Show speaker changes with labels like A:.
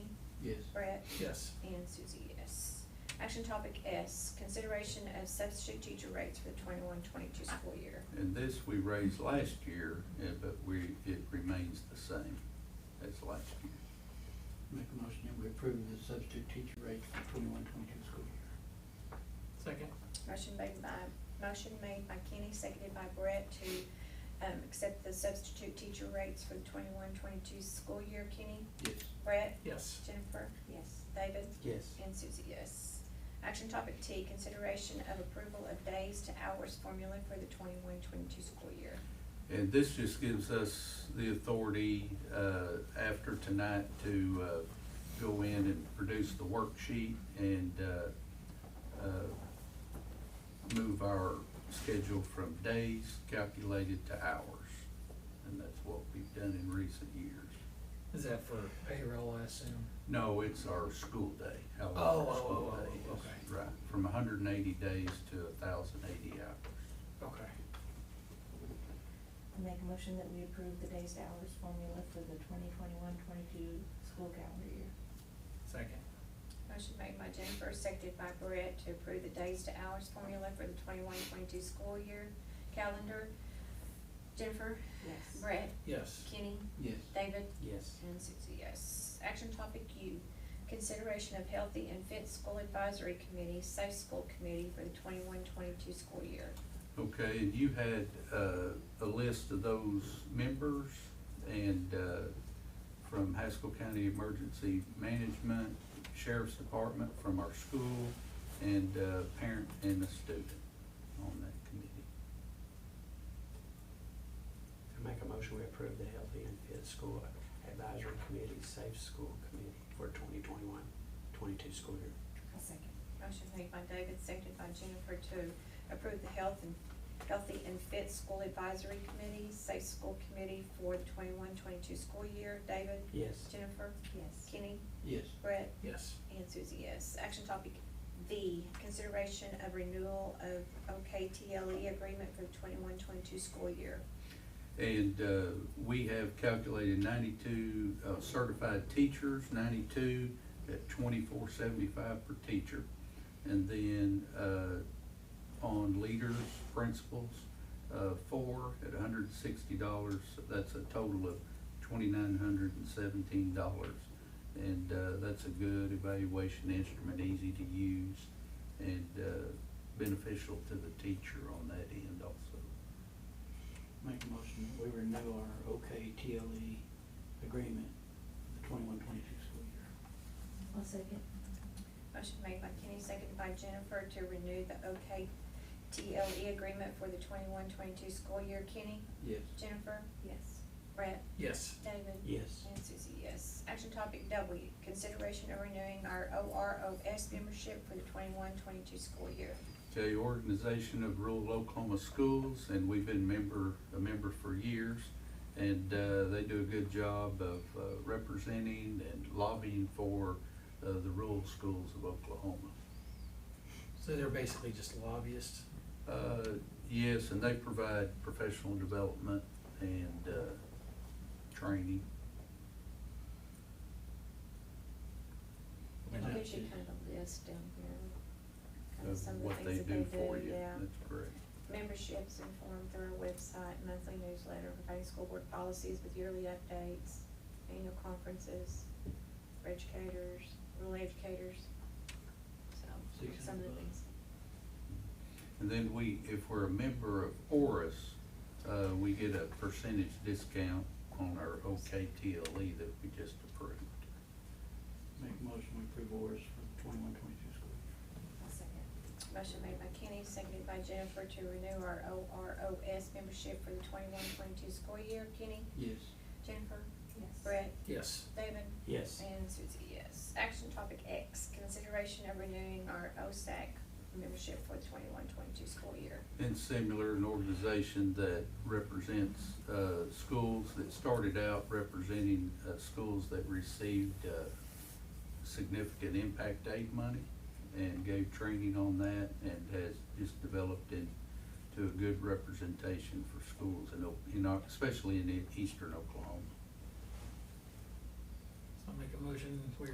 A: Yes.
B: Brett,
C: Yes.
B: and Susie, yes. Action topic S, consideration of substitute teacher rates for the 21-22 school year.
A: And this we raised last year, eh, but we, it remains the same as last year.
D: Make a motion that we approve the substitute teacher rates for twenty-one, twenty-two school year.
C: Second?
B: Motion made by, motion made by Kenny, seconded by Brett to, um, accept the substitute teacher rates for the 21-22 school year. Kenny?
D: Yes.
B: Brett?
C: Yes.
B: Jennifer? Yes. David?
D: Yes.
B: And Susie, yes. Action topic T, consideration of approval of days to hours formula for the 21-22 school year.
A: And this just gives us the authority, uh, after tonight to, uh, go in and produce the worksheet and, uh, uh, move our schedule from days calculated to hours. And that's what we've done in recent years.
C: Is that for payroll, I assume?
A: No, it's our school day, how long
C: Oh,
A: our
C: oh,
A: school
C: oh, oh,
A: day is.
C: okay.
A: Right, from hundred and eighty days to thousand eighty hours.
C: Okay.
E: I make a motion that we approve the days to hours formula for the 2021-22 school calendar year.
C: Second?
B: Motion made by Jennifer, seconded by Brett to approve the days to hours formula for the 21-22 school year calendar. Jennifer?
E: Yes.
B: Brett?
C: Yes.
B: Kenny?
D: Yes.
B: David?
D: Yes.
B: And Susie, yes. Action topic U, consideration of healthy and fit school advisory committee, safe school committee for the 21-22 school year.
A: Okay, and you had, uh, a list of those members and, uh, from Haskell County Emergency Management, Sheriff's Department, from our school, and, uh, parent and a student on that committee.
F: I make a motion, we approve the Healthy and Fit School Advisory Committee, Safe School Committee for 2021-22 school year.
E: I'll second.
B: Motion made by David, seconded by Jennifer to approve the health and, healthy and fit school advisory committee, safe school committee for the 21-22 school year. David?
F: Yes.
B: Jennifer?
E: Yes.
B: Kenny?
D: Yes.
B: Brett?
C: Yes.
B: And Susie, yes. Action topic V, consideration of renewal of OKTLE E agreement for the 21-22 school year.
A: And uh, we have calculated ninety-two uh, certified teachers, ninety-two at twenty-four seventy-five per teacher. And then uh, on leaders, principals, uh, four at hundred and sixty dollars. That's a total of twenty-nine hundred and seventeen dollars. And uh, that's a good evaluation instrument, easy to use and uh, beneficial to the teacher on that end also.
D: Make a motion that we renew our OK TLE E agreement for the twenty-one, twenty-two school year.
E: I'll second.
B: Motion made by Kenny, seconded by Jennifer to renew the OKTLE E agreement for the 21-22 school year. Kenny?
D: Yes.
B: Jennifer?
E: Yes.
B: Brett?
C: Yes.
B: David?
F: Yes.
B: And Susie, yes. Action topic W, consideration of renewing our OROS membership for the 21-22 school year.
A: Okay, Organization of Rural Oklahoma Schools, and we've been member, a member for years. And uh, they do a good job of uh, representing and lobbying for uh, the rural schools of Oklahoma.
C: So they're basically just lobbyists?
A: Uh, Yes, and they provide professional development and uh, training.
D: And
B: It
D: that
B: gives you
D: is-
B: kind of a list down here. Kind of
A: of
B: some of
A: what
B: the
A: they
B: things that
A: do
B: they
A: for
B: do,
A: you.
B: yeah.
A: That's correct.
B: Memberships informed through our website, monthly newsletter, providing school board policies with yearly updates, annual conferences, for educators, rural educators. So,
D: Six
B: some of the
D: hundred
B: things.
D: bucks.
A: And then we, if we're a member of ORIS, uh, we get a percentage discount on our OKTLE E that we just approved.
D: Make a motion we approve ours for the twenty-one, twenty-two school year.
E: I'll second.
B: Motion made by Kenny, seconded by Jennifer to renew our OROS membership for the 21-22 school year. Kenny?
D: Yes.
B: Jennifer?
E: Yes.
B: Brett?
C: Yes.
B: David?
F: Yes.
B: And Susie, yes. Action topic X, consideration of renewing our OSAC membership for the 21-22 school year.
A: And similar, an organization that represents uh, schools that started out representing uh, schools that received uh, significant impact aid money and gave training on that and has just developed into a good representation for schools in, O- in, O- especially in eastern Oklahoma.
C: So I'll make a motion, we